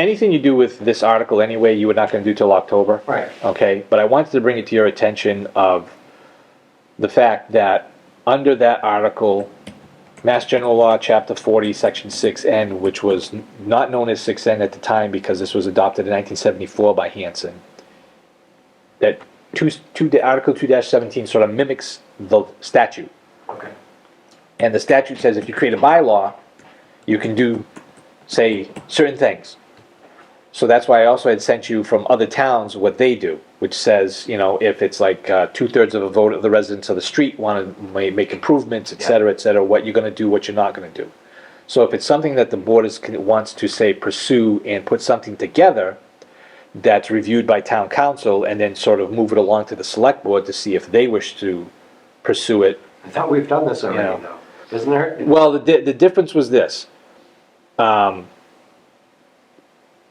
anything you do with this article anyway, you were not gonna do till October. Right. Okay, but I wanted to bring it to your attention of the fact that under that article, Mass General Law, Chapter forty, Section six N, which was n- not known as six N at the time because this was adopted in nineteen seventy-four by Hanson, that two, s- two, da- Article two seventeen sort of mimics the statute. Okay. And the statute says if you create a bylaw, you can do, say, certain things. So that's why I also had sent you from other towns what they do, which says, you know, if it's like uh, two-thirds of a vote of the residents of the street want to make improvements, et cetera, et cetera, what you're going to do, what you're not going to do. So if it's something that the board is, wants to say pursue and put something together that's reviewed by town council and then sort of move it along to the select board to see if they wish to pursue it I thought we've done this already, Yeah. though. Isn't there? well, the, di- the difference was this. Um,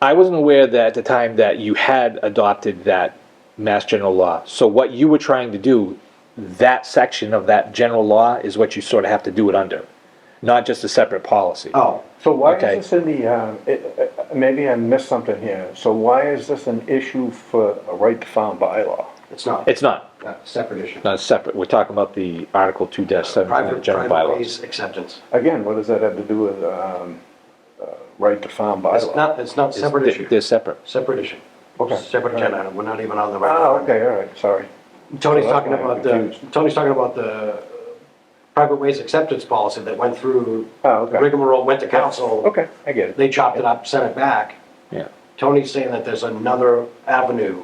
I wasn't aware that at the time that you had adopted that mass general law. So what you were trying to do, that section of that general law is what you sort of have to do it under, not just a separate policy. Oh, So why Okay. is this in the, uh, it- uh, maybe I missed something here, so why is this an issue for a right to farm bylaw? it's not. It's not, Uh, Separate issue. not separate. We're talking about the Article two seven of the Private, general private bylaws. ways acceptance. Again, what does that have to do with um, uh, right to farm It's bylaw? not, it's not separate They're- They're issue. separate. Separate issue. Okay. Separate agenda item. We're not even on the right. Ah, one. okay, all right, sorry. Tony's Well, that's talking why I'm about the, confused. Tony's talking about the private ways acceptance policy that went through. Oh, okay. Rigmarole, went to council. Okay, I get it. They chopped it up, sent it back. Yeah. Tony's saying that there's another avenue.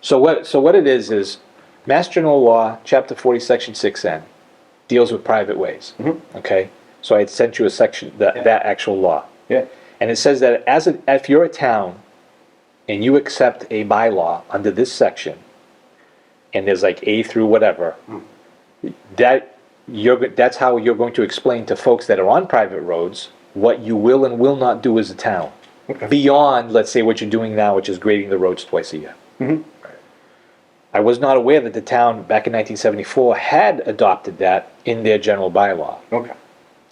So what, so what it is, is Mass General Law, Chapter 40, Section 6N, deals with private ways. Okay? So I had sent you a section, that, that actual law. Yeah, And it says that as, a- if you're a town and you accept a bylaw under this section, and there's like A through whatever, that, you're, go- that's how you're going to explain to folks that are on private roads what you will and will not do as a town. Beyond, let's say, what you're doing now, which is grading the roads twice a year. I was not aware that the town back in 1974 had adopted that in their general bylaw. okay.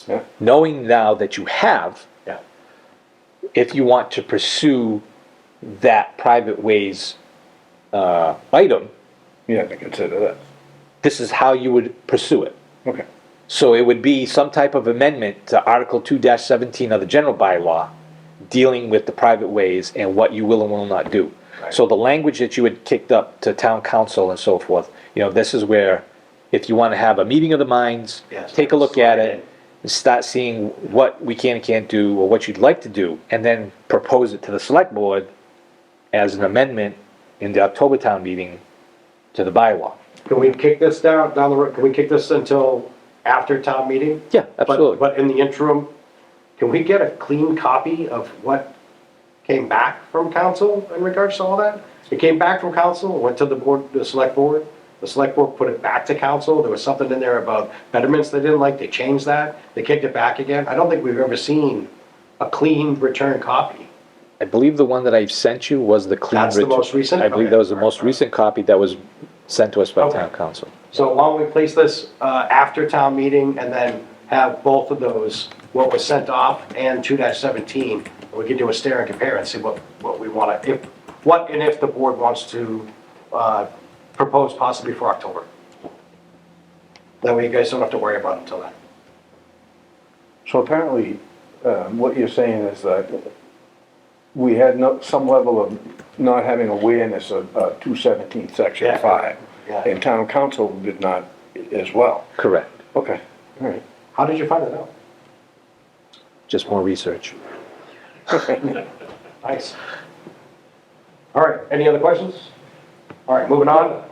Yeah, Knowing now that you have, Yeah. if you want to pursue that private ways uh, item, you have to consider that. this is how you would pursue it. Okay, So it would be some type of amendment to Article 2-17 of the general bylaw dealing with the private ways and what you will and will not do. So the language that you had kicked up to town council and so forth, you know, this is where, if you want to have a meeting of the minds, Yes, take a look at slide it, and start seeing what we can and can't do or what you'd like to do, and then propose it to the select board as an amendment in the October town meeting to the bylaw. Can we kick this down, down the road? Can we kick this until after town meeting? Yeah, But- absolutely. But in the interim, can we get a clean copy of what came back from council in regards to all that? It came back from council, went to the board, the select board. The select board put it back to council. There was something in there about betterments they didn't like. They changed that. They kicked it back again. I don't think we've ever seen a clean return copy. I believe the one that I sent you was the clean. That's the rit- most recent? I believe Okay. that was the most recent copy that was sent to us by Okay. town council. So why don't we place this uh, after town meeting and then have both of those, what was sent off and 2-17? We can do a stare and compare and see what, what we want to, if, what and if the board wants to uh, propose possibly for October. That way you guys don't have to worry about it until then. so apparently, um, what you're saying is that we had no, some level of not having awareness of uh, 217, Yeah. Section 5. Yeah. And town council did not i- as well. Correct. Okay, all right. How did you find it out? Just more research. Nice. All right, any other questions? All right, moving on.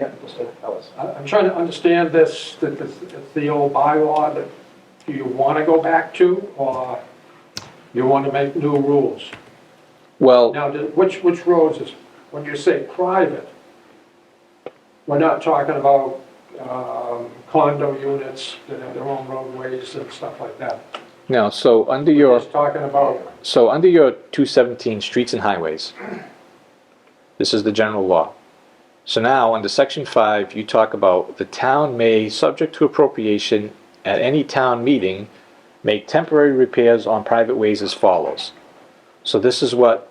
Yeah, Mr. Ellis. I- I'm trying to understand this, that this- it's the old bylaw that do you want to go back to, or you want to make new rules? Well, Now, did- which, which roads is, when you say private, we're not talking about um, condo units that have their own roadways and stuff like that. no, so under We're your, just talking about, so under your two seventeen streets and highways, this is the general law. So now, under section five, you talk about the town may, subject to appropriation at any town meeting, make temporary repairs on private ways as follows. So this is what